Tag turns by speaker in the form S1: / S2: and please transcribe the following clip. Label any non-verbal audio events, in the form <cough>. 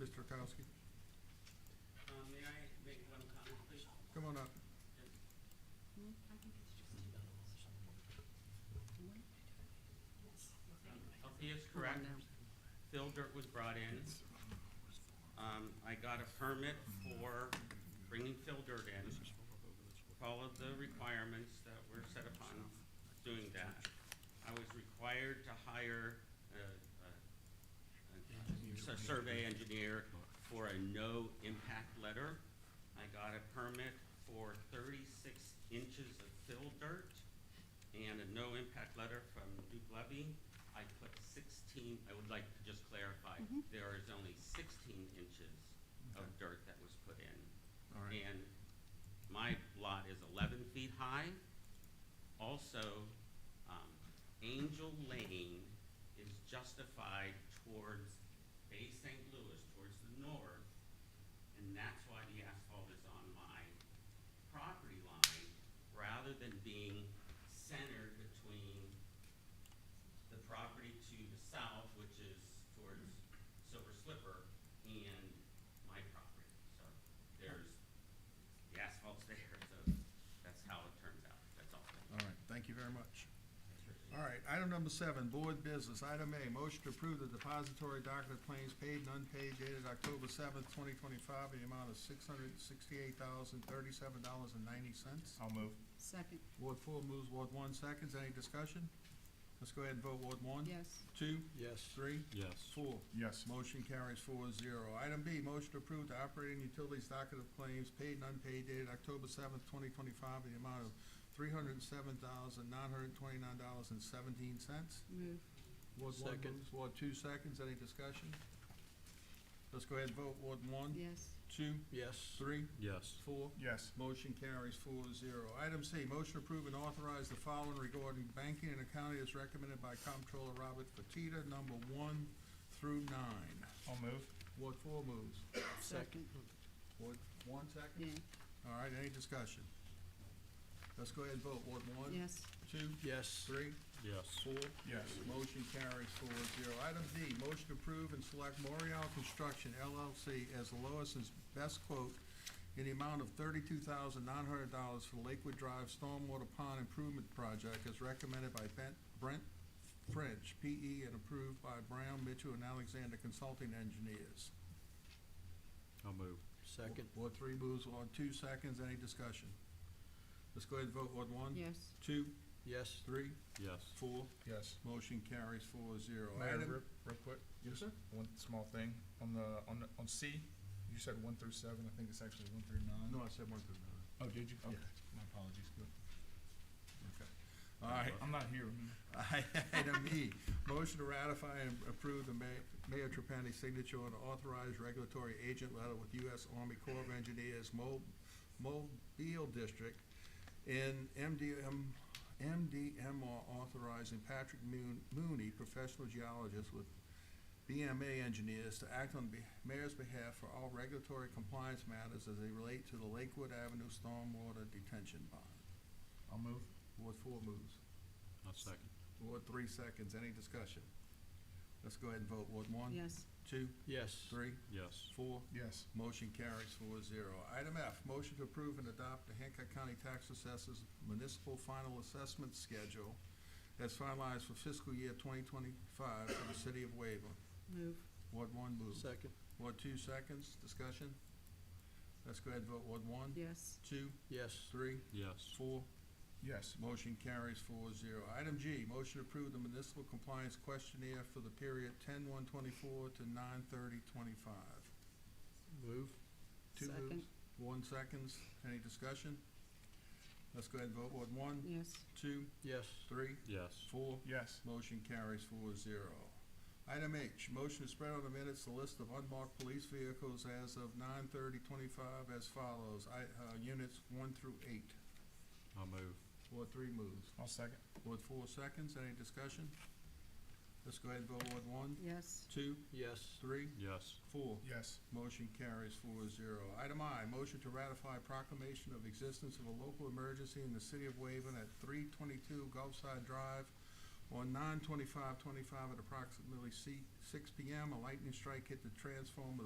S1: Kirkowski.
S2: Um, may I make one comment, please?
S1: Come on up.
S2: Althea oh, is correct. Phil Dirt was brought in. Um, I got a permit for bringing Phil Dirt in. Followed the requirements that were set upon doing that. I was required to hire a, a- a, a survey engineer for a no-impact letter. I got a permit for thirty-six inches of fill dirt and a no-impact letter from Duke Levy. I put sixteen, I would like to just clarify, there is only sixteen inches of dirt that was put in.
S1: All right.
S2: And my lot is eleven feet high. Also, um, Angel Lane is justified towards Bay St. Louis, towards the north. And that's why the asphalt is on my property line, rather than being centered between the property to the south, which is towards Silver Slipper, and my property. So there's, the asphalt's <laughs> there, so that's how it turns out, that's all.
S1: All right, thank you very much. All right, item number seven, board business. Item A, motion to approve the depository docket of claims paid and unpaid dated October seventh, twenty twenty-five, the amount of six hundred sixty-eight thousand thirty-seven dollars and ninety cents.
S3: I'll move.
S4: Second,
S1: Ward four moves, Ward one seconds. Any discussion? Let's go ahead and vote. Ward one?
S4: yes,
S1: Two?
S5: Yes.
S1: Three?
S5: Yes.
S1: Four.
S3: Yes.
S1: Motion carries four zero. Item B, motion to approve the operating utilities docket of claims paid and unpaid dated October seventh, twenty twenty-five, in the amount of three hundred and seven thousand, nine hundred and twenty-nine dollars and seventeen cents.
S4: move,
S1: Ward one
S5: Second.
S1: moves, Ward two seconds, any discussion? Let's go ahead and vote. Ward one,
S4: yes,
S1: two,
S5: Yes.
S1: three,
S5: Yes.
S1: four.
S3: Yes.
S1: Motion carries four zero. Item C, motion to approve and authorize the following regarding banking and accounting as recommended by Comptroller Robert Fatita, number one through nine.
S3: I'll move.
S1: Ward four moves.
S4: second,
S1: Ward one second?
S4: yeah,
S1: All right, any discussion? Let's go ahead and vote. Ward one?
S4: yes,
S1: Two?
S5: Yes.
S1: Three?
S5: Yes.
S1: Four?
S3: Yes.
S1: Motion carries four zero. Item D, motion to approve and select Morial Construction LLC as the lowest and best quote in the amount of thirty-two thousand nine hundred dollars for Lakewood Drive Stormwater Pond Improvement Project as recommended by Ben- Brent French, PE, and approved by Brown, Mitchell, and Alexander Consulting Engineers.
S5: I'll move. Second.
S1: Ward three moves, Ward two seconds, any discussion? Let's go ahead and vote, Ward one?
S4: yes,
S1: Two,
S5: Yes.
S1: three,
S5: Yes.
S1: four,
S3: Yes.
S1: motion carries four zero.
S3: Mayor,
S1: Item-
S3: real, real quick.
S1: Yes, sir?
S3: One small thing, on the, on, the on C, you said one through seven, I think it's actually one through nine.
S1: No, I said one through nine.
S3: Oh, did you? Okay,
S1: Yeah.
S3: my apologies. Good.
S1: Okay. All right,
S3: I'm not here, remember?
S1: <laughs> item E, motion to ratify and approve the ma- Mayor Trapani signature on authorized regulatory agent letter with U.S. Army Corps of Engineers Mo- Mobile District in MDM, MDMR authorizing Patrick Moon- Mooney, professional geologist with BMA engineers to act on the mayor's behalf for all regulatory compliance matters as they relate to the Lakewood Avenue Stormwater Detention Bond.
S3: I'll move.
S1: Ward four moves.
S5: I'll second.
S1: Ward three seconds, any discussion? Let's go ahead and vote, Ward one?
S4: yes,
S1: Two,
S5: Yes.
S1: three,
S5: Yes.
S1: four,
S3: Yes.
S1: motion carries four zero. Item F, motion to approve and adopt the Hancock County Tax Assessors Municipal Final Assessment Schedule as finalized for fiscal year twenty twenty-five for the city of Waverlin.
S4: move,
S1: Ward one moves.
S5: Second.
S1: Ward two seconds, discussion? Let's go ahead and vote, Ward one?
S4: yes,
S1: Two,
S5: Yes.
S1: three,
S5: Yes.
S1: four,
S3: Yes.
S1: Motion carries four zero. Item G, motion to approve the municipal compliance questionnaire for the period ten one twenty-four to nine thirty twenty-five.
S5: Move.
S1: Two
S4: second,
S1: moves, one seconds. Any discussion? Let's go ahead and vote. Ward one,
S4: yes,
S1: two,
S5: Yes.
S1: three,
S5: Yes.
S1: four.
S3: Yes.
S1: Motion carries four zero. Item H, motion to spread on the minutes the list of unmarked police vehicles as of nine thirty twenty-five as follows. I, uh, units one through eight.
S5: I'll move.
S1: Ward three moves.
S3: I'll second.
S1: Ward four seconds, any discussion? Let's go ahead and vote Ward one,
S4: yes,
S1: two,
S5: Yes.
S1: three,
S5: Yes.
S1: four.
S3: Yes.
S1: Motion carries four zero. Item I, motion to ratify proclamation of existence of a local emergency in the city of Waven at three twenty-two Gulfside Drive on nine twenty-five twenty-five at approximately C- six P M. A lightning strike hit the transformer